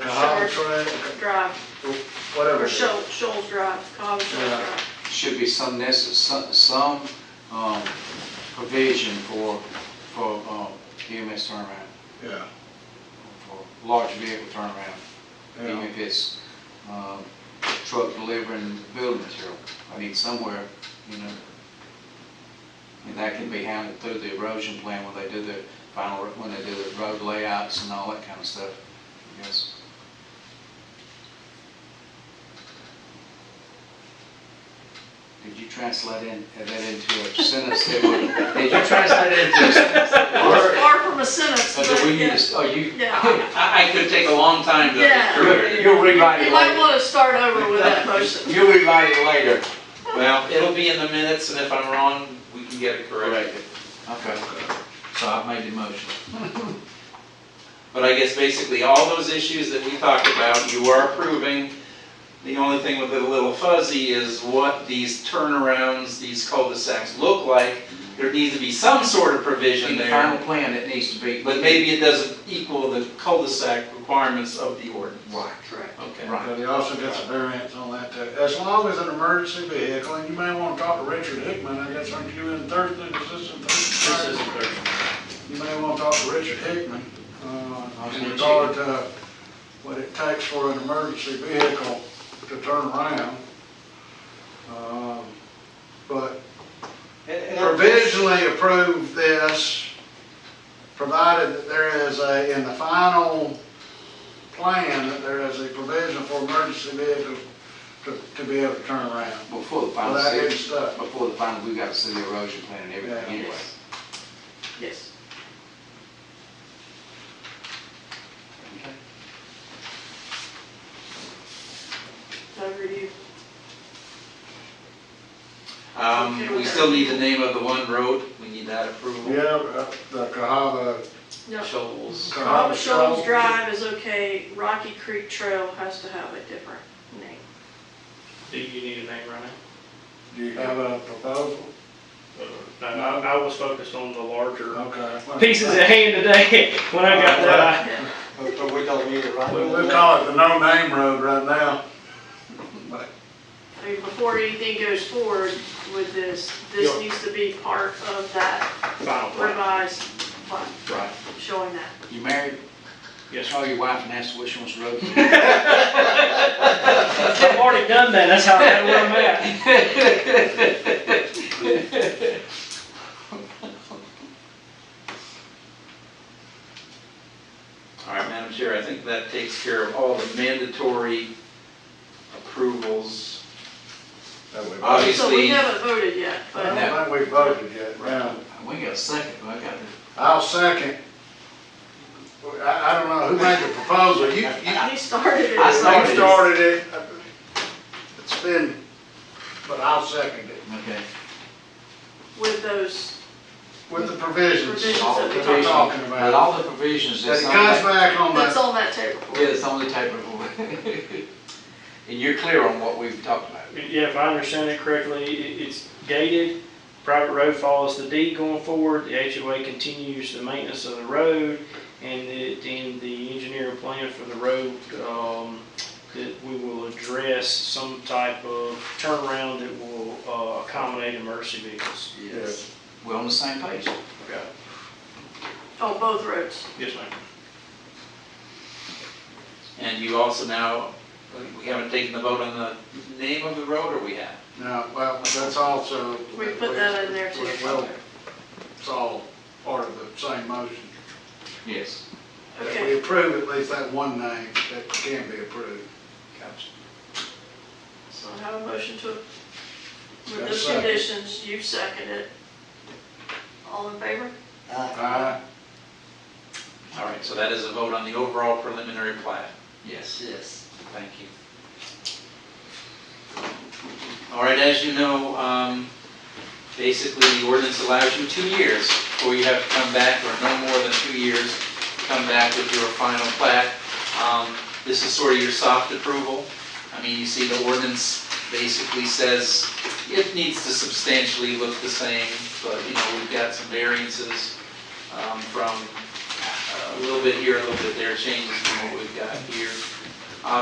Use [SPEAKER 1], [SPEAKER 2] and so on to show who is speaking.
[SPEAKER 1] Yeah, Howard Drive,
[SPEAKER 2] Drive, or
[SPEAKER 1] whatever. it is.
[SPEAKER 2] Shoal, Shoals Drive, Cottle Shoals
[SPEAKER 1] Yeah.
[SPEAKER 2] Drive.
[SPEAKER 3] should be some necess, some, some, um, provision for, for, um, EMS turnaround,
[SPEAKER 1] Yeah,
[SPEAKER 3] for large vehicle turnaround, even
[SPEAKER 1] yeah,
[SPEAKER 3] if it's, um, truck delivering building material. I mean, somewhere, you know, and that can be handled through the erosion plan when they do the final, when they do the road layouts and all that kind of stuff, I guess. Did you translate in, that into a sentence that would, did you translate it into a
[SPEAKER 2] Well, it's
[SPEAKER 3] word?
[SPEAKER 2] far from a sentence,
[SPEAKER 3] So
[SPEAKER 2] but
[SPEAKER 3] do we
[SPEAKER 2] yeah.
[SPEAKER 3] use, oh, you,
[SPEAKER 2] Yeah.
[SPEAKER 4] I, I could take a long time to.
[SPEAKER 2] Yeah.
[SPEAKER 3] you'll you'll rewrite
[SPEAKER 2] You
[SPEAKER 3] it
[SPEAKER 2] might
[SPEAKER 3] later.
[SPEAKER 2] want to start over with that motion.
[SPEAKER 3] You'll rewrite it later.
[SPEAKER 4] Well, it'll be in the minutes, and if I'm wrong, we can get it corrected.
[SPEAKER 3] Okay, so I've made the motion.
[SPEAKER 4] But I guess basically all those issues that we talked about, you are approving. The only thing with it a little fuzzy is what these turnarounds, these cul-de-sacs look like. There needs to be some sort of provision
[SPEAKER 3] In the final
[SPEAKER 4] there,
[SPEAKER 3] plan, it needs to be.
[SPEAKER 4] but maybe it doesn't equal the cul-de-sac requirements of the ordinance.
[SPEAKER 3] Right.
[SPEAKER 2] Correct.
[SPEAKER 4] Okay.
[SPEAKER 3] Right.
[SPEAKER 1] but he also gets a variance on that too. As long as an emergency vehicle, and you may want to talk to Richard Hickman, I guess, aren't you in Thursday, this is Thursday? You may want to talk to Richard Hickman, uh, in regard to what it takes for an emergency vehicle to turn around. Um, But provisionally approve this, provided that there is a, in the final plan, that there is a provision for emergency vehicles to, to be able to turn around.
[SPEAKER 3] Before the
[SPEAKER 1] Well,
[SPEAKER 3] final
[SPEAKER 1] that is
[SPEAKER 3] city,
[SPEAKER 1] stuff.
[SPEAKER 3] before the final, we got to see the erosion plan and everything
[SPEAKER 1] Yeah.
[SPEAKER 3] anyway.
[SPEAKER 2] Yes. Over to you.
[SPEAKER 4] Um, we still need the name of the one road, we need that approval.
[SPEAKER 1] Yeah, uh, the Cahaba,
[SPEAKER 2] No,
[SPEAKER 4] Shoals.
[SPEAKER 2] Cottle
[SPEAKER 1] Cahaba
[SPEAKER 2] Shoals
[SPEAKER 1] Shoals.
[SPEAKER 2] Drive is okay, Rocky Creek Trail has to have a different name.
[SPEAKER 5] Do you need a name right
[SPEAKER 1] Do you have a proposal?
[SPEAKER 5] now? Uh, No, I, I was focused on the larger
[SPEAKER 1] Okay.
[SPEAKER 5] pieces at hand today when I got that.
[SPEAKER 3] But we don't need it right
[SPEAKER 1] We- We'll call it the No Name Road right now.
[SPEAKER 2] I mean, before anything goes forward with this, this
[SPEAKER 5] Yeah.
[SPEAKER 2] needs to be part of that
[SPEAKER 5] Final plan.
[SPEAKER 2] revised plan,
[SPEAKER 5] Right.
[SPEAKER 2] showing that.
[SPEAKER 3] You married,
[SPEAKER 5] Yes,
[SPEAKER 3] call your wife and ask which one's the road.
[SPEAKER 5] I've already done that, that's how I know where I'm at.
[SPEAKER 4] All right, Madam Chair, I think that takes care of all the mandatory approvals.
[SPEAKER 1] I
[SPEAKER 2] So we
[SPEAKER 4] Obviously,
[SPEAKER 2] haven't voted yet, but
[SPEAKER 1] don't think we voted yet. Yeah.
[SPEAKER 3] We got a second, but I got
[SPEAKER 1] I'll second. I, I don't know who made the proposal. You, you
[SPEAKER 2] he started it.
[SPEAKER 3] I
[SPEAKER 1] I
[SPEAKER 3] started it.
[SPEAKER 1] started it, it's been, but I'll second it,
[SPEAKER 3] it. Okay.
[SPEAKER 2] With those,
[SPEAKER 1] with the provisions
[SPEAKER 2] Provisions
[SPEAKER 3] All the
[SPEAKER 2] that we
[SPEAKER 1] that we're talking
[SPEAKER 3] provisions, but
[SPEAKER 1] about.
[SPEAKER 3] all the provisions
[SPEAKER 1] That
[SPEAKER 3] that's
[SPEAKER 1] it
[SPEAKER 3] on
[SPEAKER 1] comes
[SPEAKER 3] that.
[SPEAKER 1] back on
[SPEAKER 2] that's
[SPEAKER 1] the,
[SPEAKER 2] on that table.
[SPEAKER 3] Yeah, it's on the table. And you're clear on what we've talked about.
[SPEAKER 5] Yeah, if I understand it correctly, it, it's gated, private road follows the deed going forward, the HOA continues the maintenance of the road, and the, then the engineering plan for the road, um, that we will address some type of turnaround that will, uh, accommodate emergency vehicles.
[SPEAKER 1] Yes.
[SPEAKER 3] We're on the same page.
[SPEAKER 5] Okay.
[SPEAKER 2] On both roads.
[SPEAKER 5] Yes, ma'am.
[SPEAKER 4] and you also now, we haven't taken the vote on the name of the road, or we have?
[SPEAKER 1] no, well, that's also.
[SPEAKER 2] We put that in there too.
[SPEAKER 1] Well, It's all part of the same motion.
[SPEAKER 3] Yes.
[SPEAKER 1] That
[SPEAKER 2] Okay.
[SPEAKER 1] we approve at least that one name that can be approved.
[SPEAKER 2] So I have a motion to, with
[SPEAKER 1] Got a
[SPEAKER 2] those
[SPEAKER 1] second.
[SPEAKER 2] conditions, you second it. All in favor?
[SPEAKER 1] Aye.
[SPEAKER 4] All right, so that is a vote on the overall preliminary plat.
[SPEAKER 3] Yes.
[SPEAKER 4] Yes. Thank you. All right, as you know, um, basically, the ordinance allows you two years before you have to come back, or no more than two years, to come back with your final plat. Um, This is sort of your soft approval. I mean, you see the ordinance basically says it needs to substantially look the same, but, you know, we've got some variances um, from a little bit here, a little bit there, changes from what we've got here.